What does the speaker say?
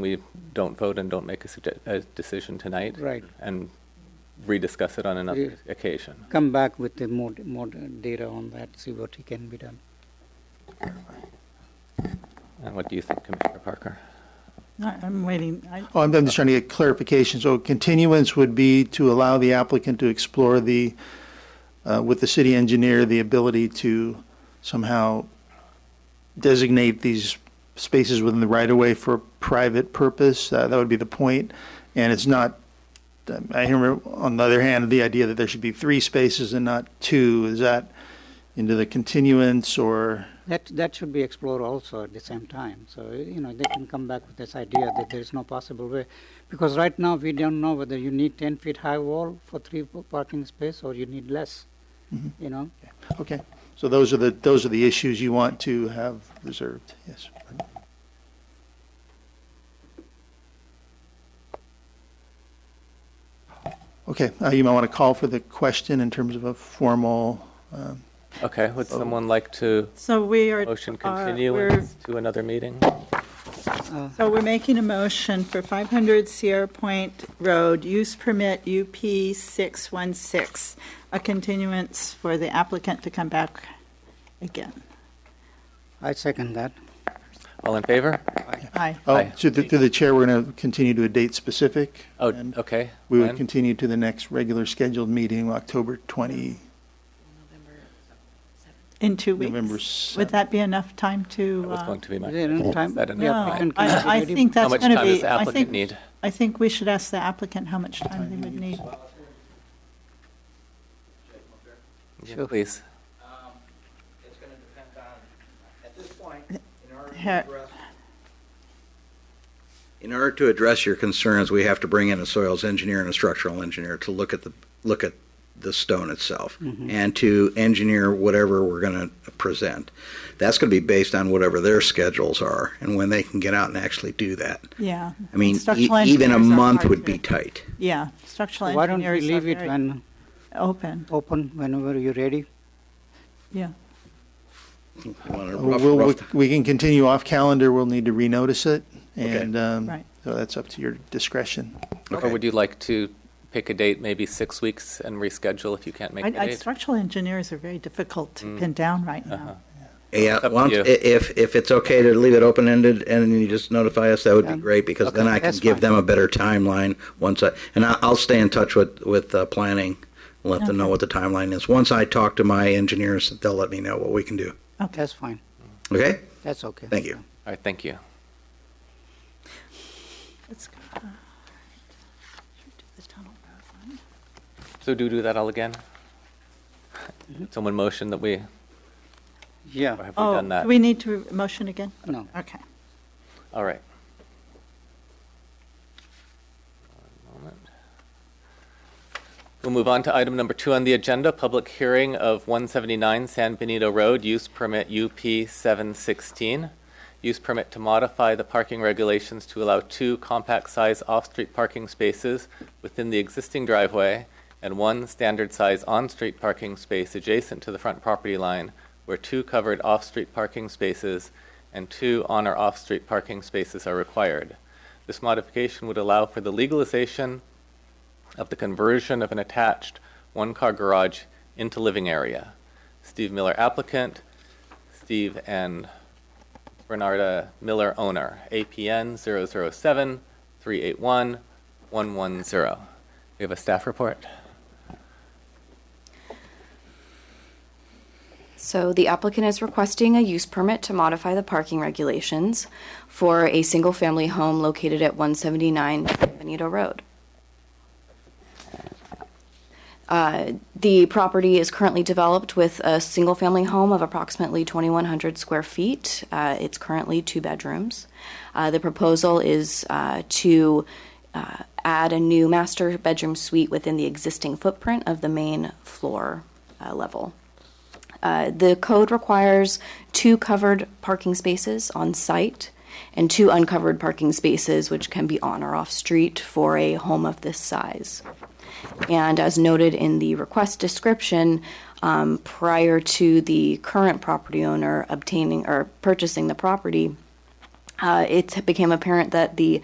we don't vote and don't make a, sugge- a decision tonight. Right. And rediscuss it on another Yeah. occasion. Come back with the more, more data on that, see what can be done. And what do you think, Commissioner Parker? I- I'm waiting. I- Oh, I'm I'm just trying to get clarification. So continuance would be to allow the applicant to explore the, uh, with the city engineer, the ability to somehow designate these spaces within the right-of-way for private purpose. Uh, That would be the point. And it's not, um, I hear, on the other hand, the idea that there should be three spaces and not two, is that into the continuance or? That, that should be explored also at the same time. So, you know, they can come back with this idea that there is no possible way. Because right now, we don't know whether you need 10 feet high wall for three p- parking space or you need less, you know? Okay, so those are the, those are the issues you want to have reserved, yes. Okay, uh, you might want to call for the question in terms of a formal, um, Okay, would someone like to So we are. motion are- continue we're- to another meeting? Uh, So we're making a motion for 500 Sierra Point Road, use permit UP 616, a continuance for the applicant to come back again. I second that. All in favor? Aye. oh, Aye. through the, through the chair, we're going to continue to a date specific. Oh, and okay. We would When? continue to the next regular scheduled meeting, October 20, In two weeks. November Would 7th. that be enough time to? That was uh, going to be Is my, there any time? Is that an Yeah, outline? we can No, I, I consider it. think how that's much going to time does be, the I applicant think, need? I think we should ask the applicant how much time they would need. Yeah, Sure. Please. Um, It's going to depend on, at this point, in order to Her- address. In order to address your concerns, we have to bring in a soils engineer and a structural engineer to look at the, look at the stone itself Mm-hmm. and to engineer whatever we're going to present. That's going to be based on whatever their schedules are and when they can get out and actually do that. Yeah. I mean, e- Structural even engineers a are month hard would to- be tight. Yeah, structural Why don't we engineers are leave it very when, open, open, whenever you're ready? yeah. You want a rough- Uh, We'll, we- rough- we can continue off calendar, we'll need to renotice it, Okay. and, um, Right. so that's up to your discretion. Or Okay. would you like to pick a date, maybe six weeks, and reschedule if you can't make I, the I, date? Mm. Uh-huh. structural engineers are very difficult to pin down right now. It's Yeah, up to why don't- you. i- if, if it's okay to leave it open-ended and you just notify us, that would be great, because then Okay, I can that's give fine. them a better timeline once I, and I- I'll stay in touch with, with uh, planning, and let them know what the timeline is. Once I talk to my engineers, they'll let me know what we can do. That's fine. Okay? That's okay. Thank you. All right, thank you. Let's go. uh, should we do the tunnel road one? So do we do that all again? Someone motion that we, or Yeah, have we Oh, done that? do we need to motion again? no. Okay. All right. One moment. We'll move on to item number two on the agenda, public hearing of 179 San Benito Road, use permit UP 716. Use permit to modify the parking regulations to allow two compact-size off-street parking spaces within the existing driveway and one standard-size on-street parking space adjacent to the front property line where two covered off-street parking spaces and two on or off-street parking spaces are required. This modification would allow for the legalization of the conversion of an attached one-car garage into living area. Steve Miller applicant, Steve and Bernarda Miller owner, APN 007-381-110. We have a staff report. So the applicant is requesting a use permit to modify the parking regulations for a single-family home located at 179 Benito Road. Uh, The property is currently developed with a single-family home of approximately 2,100 square feet. Uh, It's currently two bedrooms. Uh, The proposal is uh, to uh, add a new master bedroom suite within the existing footprint of the main floor uh, level. Uh, The code requires two covered parking spaces on site and two uncovered parking spaces, which can be on or off street for a home of this size. And as noted in the request description, um, prior to the current property owner obtaining or purchasing the property, uh, it became apparent that the